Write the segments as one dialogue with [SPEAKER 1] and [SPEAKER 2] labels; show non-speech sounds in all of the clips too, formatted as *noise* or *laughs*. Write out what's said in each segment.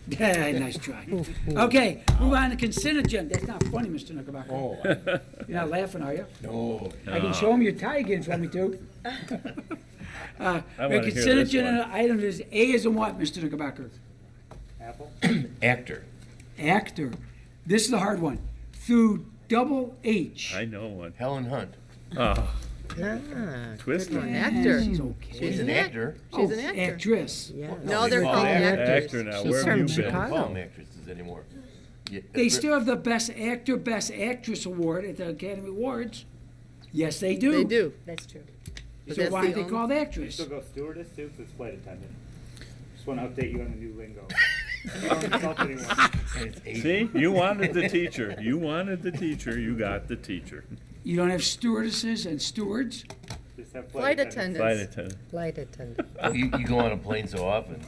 [SPEAKER 1] *laughs* Nice try. Okay, move on to consent agenda. That's not funny, Mr. Knickerbocker.
[SPEAKER 2] Oh, I-
[SPEAKER 1] *laughs* You're not laughing, are you?
[SPEAKER 2] no.
[SPEAKER 1] I can show him your tie again if you want me to. Uh,
[SPEAKER 3] I
[SPEAKER 1] The
[SPEAKER 3] wanna hear
[SPEAKER 1] consent
[SPEAKER 3] this
[SPEAKER 1] agenda item is A is in what, Mr. Knickerbocker?
[SPEAKER 2] Actor.
[SPEAKER 1] Actor. This is the hard one. Through double H.
[SPEAKER 3] I know one.
[SPEAKER 2] Helen Hunt.
[SPEAKER 3] Oh,
[SPEAKER 4] Ah,
[SPEAKER 3] Twister.
[SPEAKER 4] good one.
[SPEAKER 1] Yeah,
[SPEAKER 4] Actor.
[SPEAKER 1] She's okay.
[SPEAKER 2] She's an
[SPEAKER 4] Isn't it?
[SPEAKER 2] actor.
[SPEAKER 4] She's
[SPEAKER 1] Oh,
[SPEAKER 4] an actor.
[SPEAKER 1] Actress.
[SPEAKER 4] Yeah.
[SPEAKER 2] No,
[SPEAKER 4] No, they're
[SPEAKER 2] they're
[SPEAKER 4] called
[SPEAKER 2] called
[SPEAKER 4] actors.
[SPEAKER 3] Actor now,
[SPEAKER 4] She's
[SPEAKER 3] where have
[SPEAKER 4] from
[SPEAKER 3] you been?
[SPEAKER 2] They don't call
[SPEAKER 4] Chicago.
[SPEAKER 2] them actresses anymore. Yeah,
[SPEAKER 1] They
[SPEAKER 2] it's
[SPEAKER 1] still have the Best Actor, Best Actress Award at the Academy Awards. Yes, they do.
[SPEAKER 4] They do.
[SPEAKER 5] That's true.
[SPEAKER 4] But
[SPEAKER 1] So
[SPEAKER 4] that's
[SPEAKER 1] why
[SPEAKER 4] the
[SPEAKER 1] are they
[SPEAKER 4] only-
[SPEAKER 1] called actress?
[SPEAKER 6] Still go stewardess too, 'cause it's flight attendant. Just want to update you on the new lingo. You don't insult anyone.
[SPEAKER 2] and it's Asian.
[SPEAKER 3] See, you wanted the teacher. You wanted the teacher. You got the teacher.
[SPEAKER 1] You don't have stewardesses and stewards?
[SPEAKER 6] Just have
[SPEAKER 4] Flight
[SPEAKER 6] flight attendant.
[SPEAKER 3] Flight
[SPEAKER 4] attendants.
[SPEAKER 1] *laughs*
[SPEAKER 3] attendant.
[SPEAKER 5] Flight attendant.
[SPEAKER 2] Oh, You, you go on a plane so often.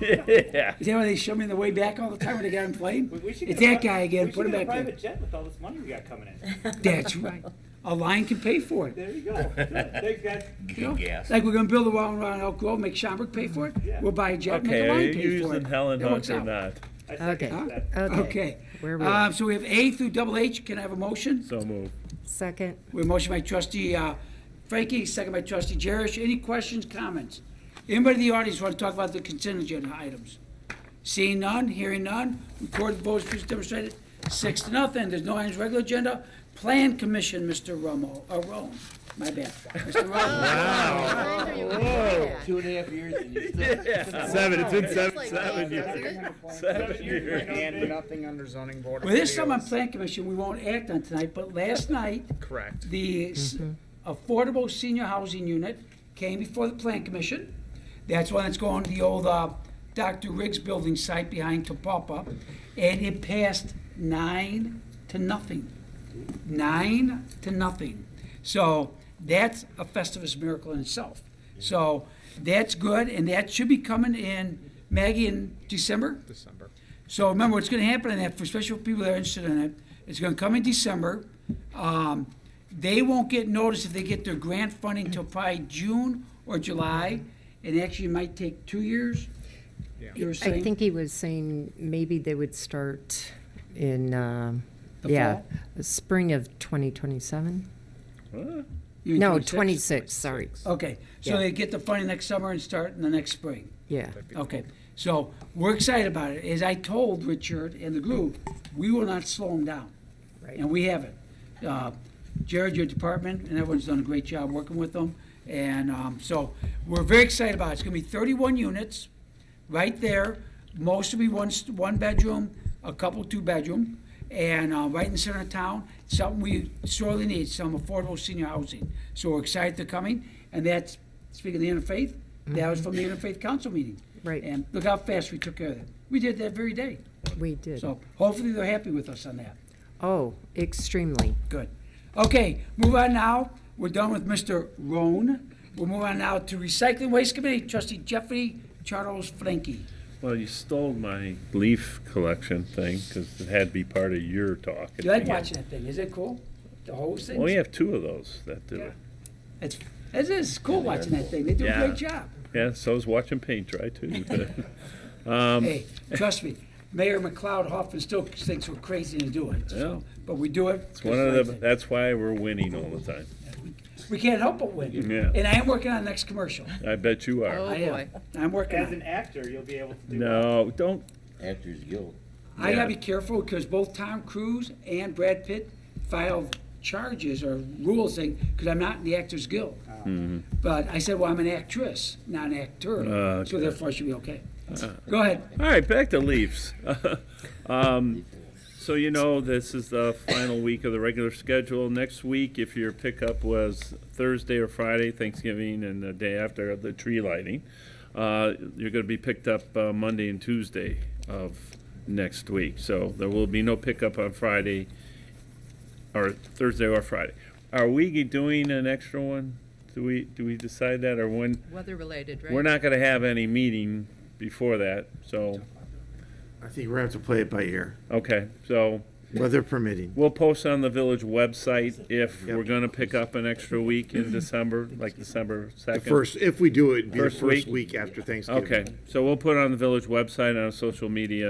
[SPEAKER 3] *laughs* Yeah.
[SPEAKER 1] Is that why they show me the way back all the time when they got on the plane?
[SPEAKER 6] We- we should
[SPEAKER 1] It's
[SPEAKER 6] get a
[SPEAKER 1] that
[SPEAKER 6] pri-
[SPEAKER 1] guy again,
[SPEAKER 6] we
[SPEAKER 1] put him
[SPEAKER 6] should get a
[SPEAKER 1] back there.
[SPEAKER 6] Private jet with all this money we got coming in.
[SPEAKER 1] That's right. A line can pay for it.
[SPEAKER 6] There
[SPEAKER 1] *laughs*
[SPEAKER 6] you go. Good. Thanks, guys.
[SPEAKER 4] *laughs*
[SPEAKER 1] you know?
[SPEAKER 2] Gas.
[SPEAKER 1] Like we're gonna build a wall around Elk Grove, make Schaumburg pay for it?
[SPEAKER 6] Yeah.
[SPEAKER 1] We'll buy a jet, make
[SPEAKER 3] Okay,
[SPEAKER 1] a
[SPEAKER 3] are
[SPEAKER 1] line pay
[SPEAKER 3] you
[SPEAKER 1] for it.
[SPEAKER 3] using Helen
[SPEAKER 1] That
[SPEAKER 3] Hunt
[SPEAKER 1] works
[SPEAKER 3] or
[SPEAKER 1] out.
[SPEAKER 3] not?
[SPEAKER 6] I second
[SPEAKER 1] Huh?
[SPEAKER 6] that.
[SPEAKER 1] Okay.
[SPEAKER 5] Where were
[SPEAKER 1] Um, so we have A through double H. Can I have a motion?
[SPEAKER 3] So move.
[SPEAKER 5] Second.
[SPEAKER 1] We have a motion by trustee uh, Frankie, second by trustee Jerish. Any questions, comments? Anybody in the audience want to talk about the consent agenda items? Seeing none, hearing none, recorded votes, please demonstrated, six to nothing. There's no items regular agenda. Plan Commission, Mr. Romo, uh, Rome, my bad, Mr. Romo.
[SPEAKER 5] Oh.
[SPEAKER 2] Two and a half years and *laughs* you still.
[SPEAKER 3] Seven, it's been seven, seven years. Seven years.
[SPEAKER 7] And nothing under zoning board. of
[SPEAKER 1] Well, there's some on
[SPEAKER 7] appeals.
[SPEAKER 1] Plan Commission we won't act on tonight, but last night,
[SPEAKER 7] Correct.
[SPEAKER 1] the s- affordable senior housing unit came before the plan commission. That's one that's going to the old uh, Dr. Riggs building site behind Topapa, and it passed nine to nothing. Nine to nothing. So that's a Festivus miracle in itself. So that's good, and that should be coming in, Maggie, in December?
[SPEAKER 7] December.
[SPEAKER 1] So remember, what's gonna happen in that, for special people that are interested in it, it's gonna come in December. Um, They won't get notice if they get their grant funding till probably June or July, and actually it might take two years.
[SPEAKER 7] Yeah.
[SPEAKER 1] You were
[SPEAKER 5] I
[SPEAKER 1] saying?
[SPEAKER 5] think he was saying maybe they would start in, um,
[SPEAKER 1] The
[SPEAKER 5] yeah,
[SPEAKER 1] fall?
[SPEAKER 5] spring of 2027?
[SPEAKER 3] Huh?
[SPEAKER 1] You mean
[SPEAKER 5] No,
[SPEAKER 1] 26?
[SPEAKER 5] 26, sorry.
[SPEAKER 1] Okay, so
[SPEAKER 5] Yeah.
[SPEAKER 1] they get the funding next summer and start in the next spring.
[SPEAKER 5] Yeah.
[SPEAKER 1] Okay, so we're excited about it. As I told Richard and the group, we will not slow them down.
[SPEAKER 5] Right.
[SPEAKER 1] And we haven't. Uh, Jared, your department, and everyone's done a great job working with them. And um, so we're very excited about it. It's going to be 31 units, right there. Most will be one, st- one bedroom, a couple two bedroom, and uh, right in the center of town. Something we sorely need, some affordable senior housing. So we're excited they're coming. And that's, speaking of the interfaith, that was from the interfaith council meeting.
[SPEAKER 5] Right.
[SPEAKER 1] And look how fast we took care of that. We did that very day.
[SPEAKER 5] We did.
[SPEAKER 1] So hopefully they're happy with us on that.
[SPEAKER 5] Oh, extremely.
[SPEAKER 1] Good. Okay, move on now. We're done with Mr. Roan. We'll move on now to Recycling Waste Committee, trustee Jeffrey Charles Frankie.
[SPEAKER 3] Well, you stole my leaf collection thing because it had to be part of your talk. at
[SPEAKER 1] You like
[SPEAKER 3] the end.
[SPEAKER 1] watching that thing, is it cool? The whole thing?
[SPEAKER 3] Well, we have two of those that do
[SPEAKER 1] Yeah.
[SPEAKER 3] it.
[SPEAKER 1] It's, it is cool watching that thing. They do a
[SPEAKER 3] Yeah.
[SPEAKER 1] great job.
[SPEAKER 3] Yeah, so's watching paint
[SPEAKER 1] *laughs*
[SPEAKER 3] dry too. *laughs* Um,
[SPEAKER 1] Hey, trust me, Mayor McLeod Hoffman still thinks we're crazy to do it, so, but we do it.
[SPEAKER 3] It's one of the, that's why we're winning all the time.
[SPEAKER 1] We can't help but win.
[SPEAKER 3] Yeah.
[SPEAKER 1] And I am working on the next commercial.
[SPEAKER 3] I bet you are.
[SPEAKER 4] Oh.
[SPEAKER 1] I am.
[SPEAKER 4] boy.
[SPEAKER 1] I'm working on it.
[SPEAKER 6] As an actor, you'll be able to do. that.
[SPEAKER 3] No, don't,
[SPEAKER 2] Actors Guild.
[SPEAKER 1] I
[SPEAKER 3] Yeah.
[SPEAKER 1] gotta be careful, because both Tom Cruise and Brad Pitt filed charges or rules saying, because I'm not in the Actors Guild.
[SPEAKER 3] Mm-hmm.
[SPEAKER 1] But I said, well, I'm an actress, not an actor,
[SPEAKER 3] Uh,
[SPEAKER 1] so
[SPEAKER 3] okay.
[SPEAKER 1] therefore I should be okay. Go ahead.
[SPEAKER 3] All right, back to Leafs. *laughs* um, so you know this is the final week of the regular schedule. Next week, if your pickup was Thursday or Friday, Thanksgiving, and the day after the tree lighting, uh, you're going to be picked up uh, Monday and Tuesday of next week. So there will be no pickup on Friday or Thursday or Friday. Are we doing an extra one? Do we do we decide that or when?
[SPEAKER 4] Weather-related, right?
[SPEAKER 3] We're not gonna have any meeting before that, so,
[SPEAKER 8] I think we're gonna have to play it by ear.
[SPEAKER 3] okay, so
[SPEAKER 8] weather permitting.
[SPEAKER 3] We'll post on the village website if
[SPEAKER 8] Yep.
[SPEAKER 3] we're gonna pick up an extra week in December, like December
[SPEAKER 8] The
[SPEAKER 3] second.
[SPEAKER 8] first, if we do it, it'd be the
[SPEAKER 3] First
[SPEAKER 8] first
[SPEAKER 3] week?
[SPEAKER 8] week after Thanksgiving.
[SPEAKER 3] Okay, so we'll put it on the village website and on social media